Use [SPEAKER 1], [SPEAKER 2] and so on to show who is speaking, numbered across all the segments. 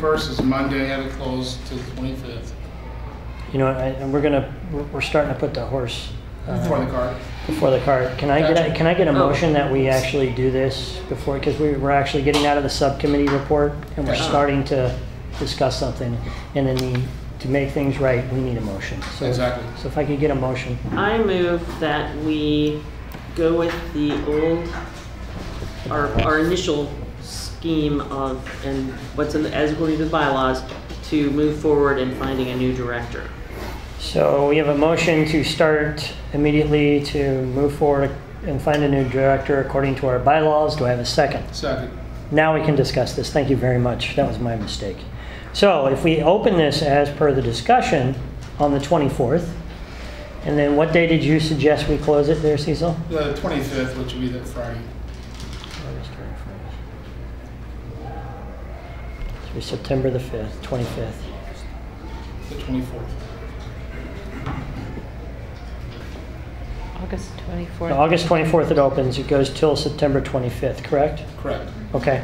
[SPEAKER 1] First is Monday, had it closed to the twenty-fifth
[SPEAKER 2] You know, I- and we're gonna, we're- we're starting to put the horse. uh,
[SPEAKER 1] for the card.
[SPEAKER 2] Before the cart. Can I get,
[SPEAKER 1] Gotcha.
[SPEAKER 2] a can I get a
[SPEAKER 3] Oh.
[SPEAKER 2] motion that we actually do this before, because we, we're actually getting out of the subcommittee report and we're
[SPEAKER 1] Gotcha.
[SPEAKER 2] starting to discuss something. And then the- to make things right, we need a motion. So-
[SPEAKER 1] Exactly.
[SPEAKER 2] So if I could get a motion,
[SPEAKER 3] I move that we go with the old, our, our initial scheme of, and what's in, the- as according to the bylaws, to move forward in finding a new director.
[SPEAKER 2] So we have a motion to start immediately to move forward and find a new director according to our bylaws. Do I have a second?
[SPEAKER 1] Second.
[SPEAKER 2] Now we can discuss this. Thank you very much. That was my mistake. So if we open this as per the discussion on the 24th, and then what day did you suggest we close it there, Cecil?
[SPEAKER 1] The twenty-fifth, which would be that Friday.
[SPEAKER 2] Through September the 5th, 25th.
[SPEAKER 1] The twenty-fourth.
[SPEAKER 4] August 24th.
[SPEAKER 2] August 24th it opens. It goes till September 25th, correct?
[SPEAKER 1] Correct.
[SPEAKER 2] Okay.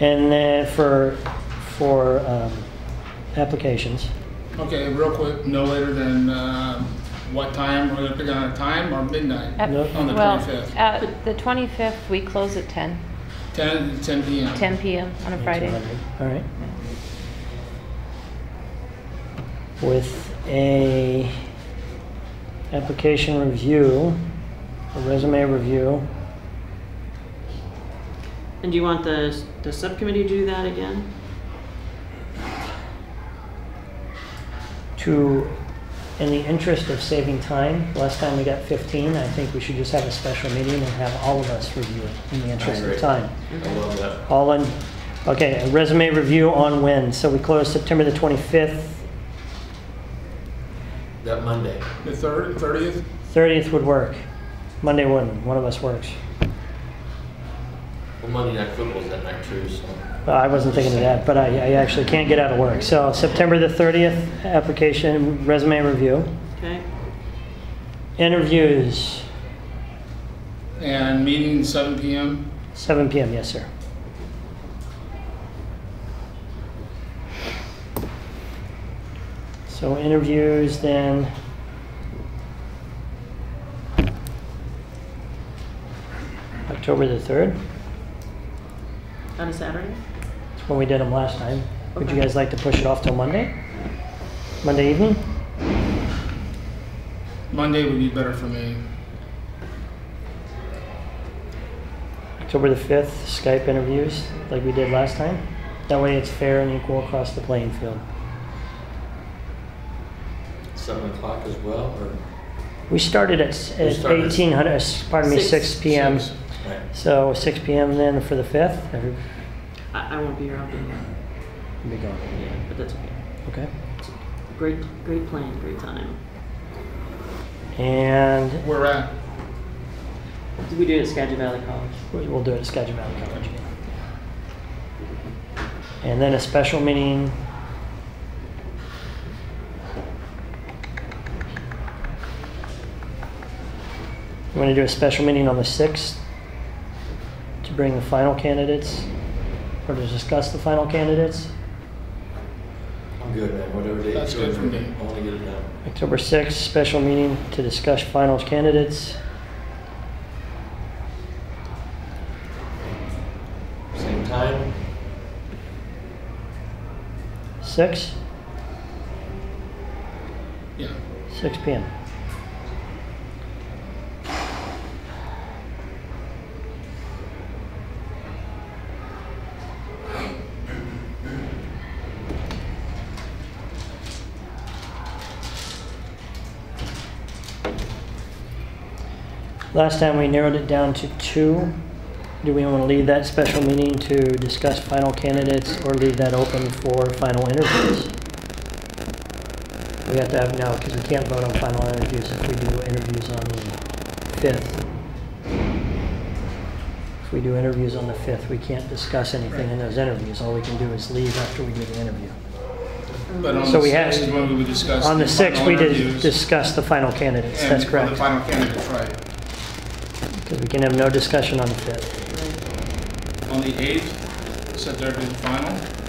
[SPEAKER 2] And then for, for um, applications,
[SPEAKER 1] Okay, real quick, no later than, um, what time? We're gonna pick on a time or midnight?
[SPEAKER 4] At-
[SPEAKER 2] No.
[SPEAKER 1] On the
[SPEAKER 4] well,
[SPEAKER 1] 25th.
[SPEAKER 4] at the 25th, we close at 10,
[SPEAKER 1] Ten, ten PM.
[SPEAKER 4] 10 p.m. on a Friday.
[SPEAKER 2] All right. With a application review, a resume review,
[SPEAKER 3] And do you want the, the subcommittee to do that again?
[SPEAKER 2] to, in the interest of saving time, last time we got 15, I think we should just have a special meeting and have all of us review it in the interest of
[SPEAKER 5] agree.
[SPEAKER 2] time.
[SPEAKER 5] I love that.
[SPEAKER 2] All in, okay, a resume review on when? So we close September the 25th,
[SPEAKER 5] That Monday.
[SPEAKER 1] The third, thirtieth?
[SPEAKER 2] 30th would work. Monday wouldn't, one of us works.
[SPEAKER 5] Well, Monday night football's that night too, so.
[SPEAKER 2] Well, I wasn't thinking of that, but I, I actually can't get out of work. So September the 30th, application resume review.
[SPEAKER 3] Okay?
[SPEAKER 2] Interviews,
[SPEAKER 1] And meeting seven PM.
[SPEAKER 2] 7 PM, yes, sir. So interviews then. October the 3rd,
[SPEAKER 3] On a Saturday?
[SPEAKER 2] that's when we did them last time. Would you
[SPEAKER 3] Okay.
[SPEAKER 2] guys like to push it off till Monday? Monday evening?
[SPEAKER 1] Monday would be better for me.
[SPEAKER 2] October the 5th, Skype interviews like we did last time. That way it's fair and equal across the playing field.
[SPEAKER 5] Seven o'clock as well, or?
[SPEAKER 2] We started at, s-
[SPEAKER 5] We
[SPEAKER 2] at
[SPEAKER 5] started-
[SPEAKER 2] 1800, uh, s- pardon me,
[SPEAKER 3] Six.
[SPEAKER 2] 6 p.m.
[SPEAKER 1] Six.
[SPEAKER 5] Right.
[SPEAKER 2] So 6 p.m. then for the 5th. Every-
[SPEAKER 3] I, I won't be here, I'll be here,
[SPEAKER 2] we'll Be gone.
[SPEAKER 3] yeah, but that's okay.
[SPEAKER 2] Okay.
[SPEAKER 3] Great, great plan, great time.
[SPEAKER 2] And
[SPEAKER 1] Where at?
[SPEAKER 3] Did we do it at Skagit Valley College?
[SPEAKER 2] we- we'll do it at Skagit Valley College. again. And then a special meeting. You want to do a special meeting on the 6th to bring the final candidates or to discuss the final candidates?
[SPEAKER 5] I'm good, man, whatever day.
[SPEAKER 1] That's good for me.
[SPEAKER 5] I wanna get it done.
[SPEAKER 2] October 6th, special meeting to discuss finals candidates.
[SPEAKER 5] Same time,
[SPEAKER 2] 6?
[SPEAKER 1] Yeah.
[SPEAKER 2] 6 PM. Last time we narrowed it down to two. Do we want to leave that special meeting to discuss final candidates or leave that open for final interviews? We have to have, no, because we can't vote on final interviews if we do interviews on the 5th. If we do interviews on the 5th, we can't discuss anything in those interviews. All we can do is leave after we do the interview.
[SPEAKER 1] But on
[SPEAKER 2] So
[SPEAKER 1] the
[SPEAKER 2] we had-
[SPEAKER 1] sixth is when we would discuss.
[SPEAKER 2] On the 6th,
[SPEAKER 1] final
[SPEAKER 2] we did
[SPEAKER 1] interviews
[SPEAKER 2] discuss the final candidates,
[SPEAKER 1] and
[SPEAKER 2] that's
[SPEAKER 1] The
[SPEAKER 2] correct.
[SPEAKER 1] final candidates, right.
[SPEAKER 2] Because we can have no discussion on the 5th.
[SPEAKER 1] On the eighth, set there to the final.